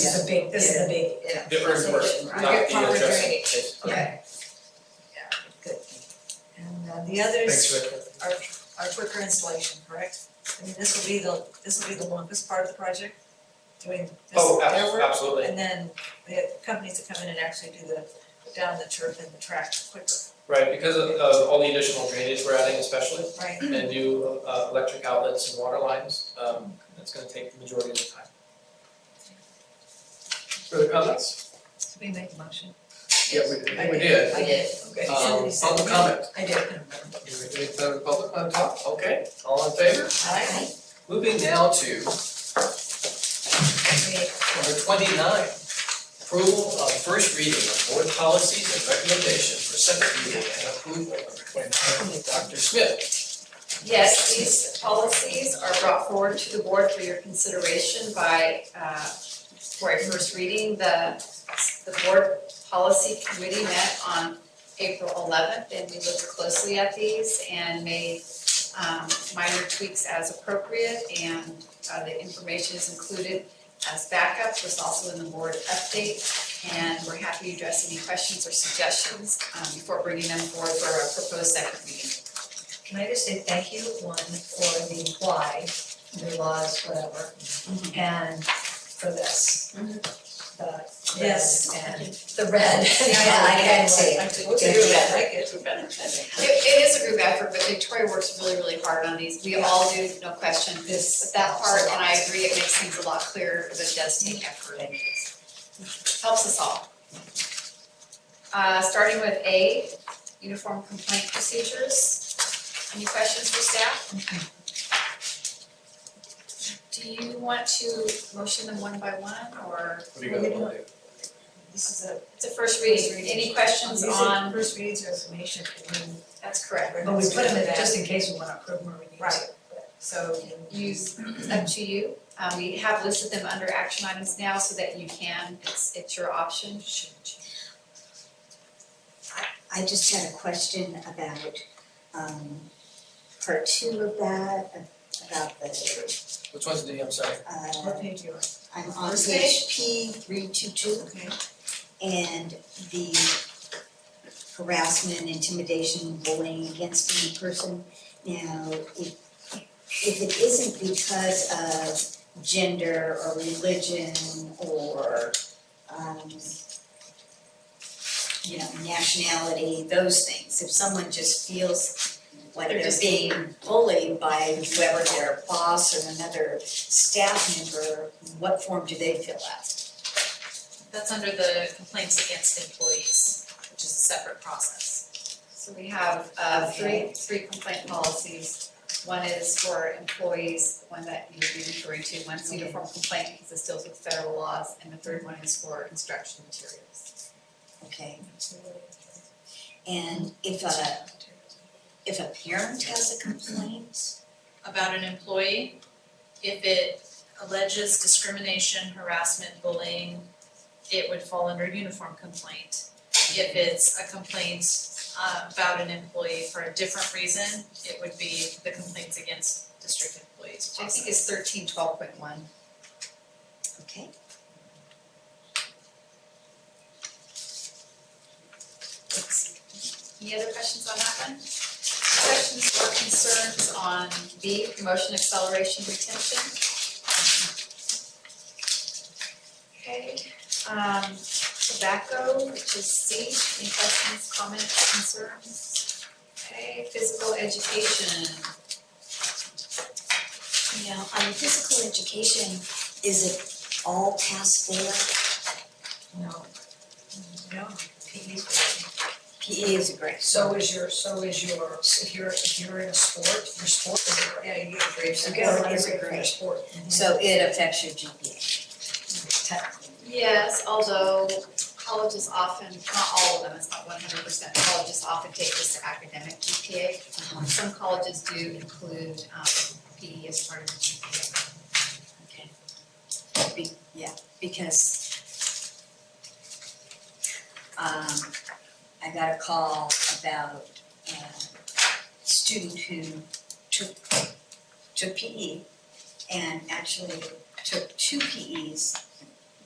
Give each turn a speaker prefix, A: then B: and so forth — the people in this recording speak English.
A: This is a big, this is a big,
B: Yeah.
C: The earthwork, not
B: Right.
C: the
B: Proper
C: adjacent.
B: drainage.
C: Okay.
B: And uh, the
C: Thanks,
B: others
C: Rick.
B: are, are quicker installation, correct? I mean, this will be the, this will be the longest part of the project, doing this,
C: Oh,
B: their
C: ab-
B: work.
C: absolutely,
B: And then the companies that come in and actually do the, down the turf and the track quicker,
C: right, because of, of all the additional drainage we're adding especially,
B: right?
C: and new, uh, electric outlets and water lines, um, that's gonna take the majority of the time. Further comments?
B: So we make a motion.
C: Yeah, we did.
B: I
C: We
B: did.
C: did.
B: I did, okay.
C: Um,
B: Somebody said-
C: public comment,
B: I did.
C: you were doing some public on top, okay, all in favor?
B: Aye.
C: Moving now to number twenty-nine, approval of first reading of board policies and recommendations for second reading and approval, number twenty-nine, Dr. Smith.
D: Yes, these policies are brought forward to the board for your consideration by, uh, for a first reading. The, the board policy committee met on April eleventh and we looked closely at these and made um, minor tweaks as appropriate and uh, the information is included as backup, was also in the board update. And we're happy to address any questions or suggestions um, before bringing them forward for a proposed second reading.
E: Can I just say thank you, one, for the why, the laws, whatever, and for this. The,
B: Yes.
E: Mm-hmm. yes, and the red, yeah, I can
B: had
E: see
B: I
E: it.
B: did,
E: Yeah.
B: I like it.
D: It, it is a group effort, but Victoria works really, really hard on these. We all do, no question.
E: This,
D: But that part, and I agree, it makes things a lot clearer, but it does take effort. and Helps us all. Uh, starting with A, uniform complaint procedures. Any questions for staff? Do you want to motion them one by one, or
C: What do you guys wanna do?
B: This is a,
D: it's a first
B: First
D: reading?
B: reading.
D: Any questions
B: these are
D: on,
B: first reads or information, I mean,
D: that's correct.
E: but we put them in just in case we wanna approve them or we need to.
B: Right. so
D: use, it's up to you. Um, we have listed them under action items now so that you can, it's, it's your option.
F: I just had a question about um part two of that, about the
C: Which ones do you, I'm sorry?
F: uh
B: what page you on?
F: I'm on
B: First
F: page P three two two
B: Okay.
F: and the harassment, intimidation, bullying against any person. Now, if if it isn't because of gender or religion or um you know, nationality, those things, if someone just feels like
D: They're
F: they're
D: just-
F: being bullied by whoever their boss or another staff member, what form do they fill out?
G: That's under the complaints against employees, which is a separate process.
D: So we have uh three, three complaint policies. One is for employees, one that you would be referring to, one's uniform complaint because this deals with federal laws, and the third one is for instruction materials.
F: Okay. And if a, if a parent has a complaint,
G: About an employee, if it alleges discrimination, harassment, bullying, it would fall under uniform complaint. If it's a complaint uh, about an employee for a different reason, it would be the complaints against district employees
D: Which I think
G: process.
D: is thirteen twelve point one.
F: okay,
D: Any other questions on that one? Questions or concerns on B, promotion acceleration retention? Okay, um, tobacco, which is C, any questions, comments, concerns? Okay, physical education,
F: now, on physical education, is it all pass fail?
B: No. No, PE's
F: PE E is a great.
E: So is your, so is your, if you're, if you're in a sport, your sport is a grade.
B: Yeah, you get grades.
F: Okay, I'll
E: Or is
F: give
E: it
F: a
E: for your
F: grade.
E: sport?
F: So it affects your GPA.
E: Technically.
D: Yes, although colleges often, not all of them, it's not one hundred percent, colleges often take this to academic
F: Uh-huh.
D: GPA. Some colleges do include um PE as part of the GPA.
F: Be- yeah, because um I got a call about a student who took E took PE and actually took two PEs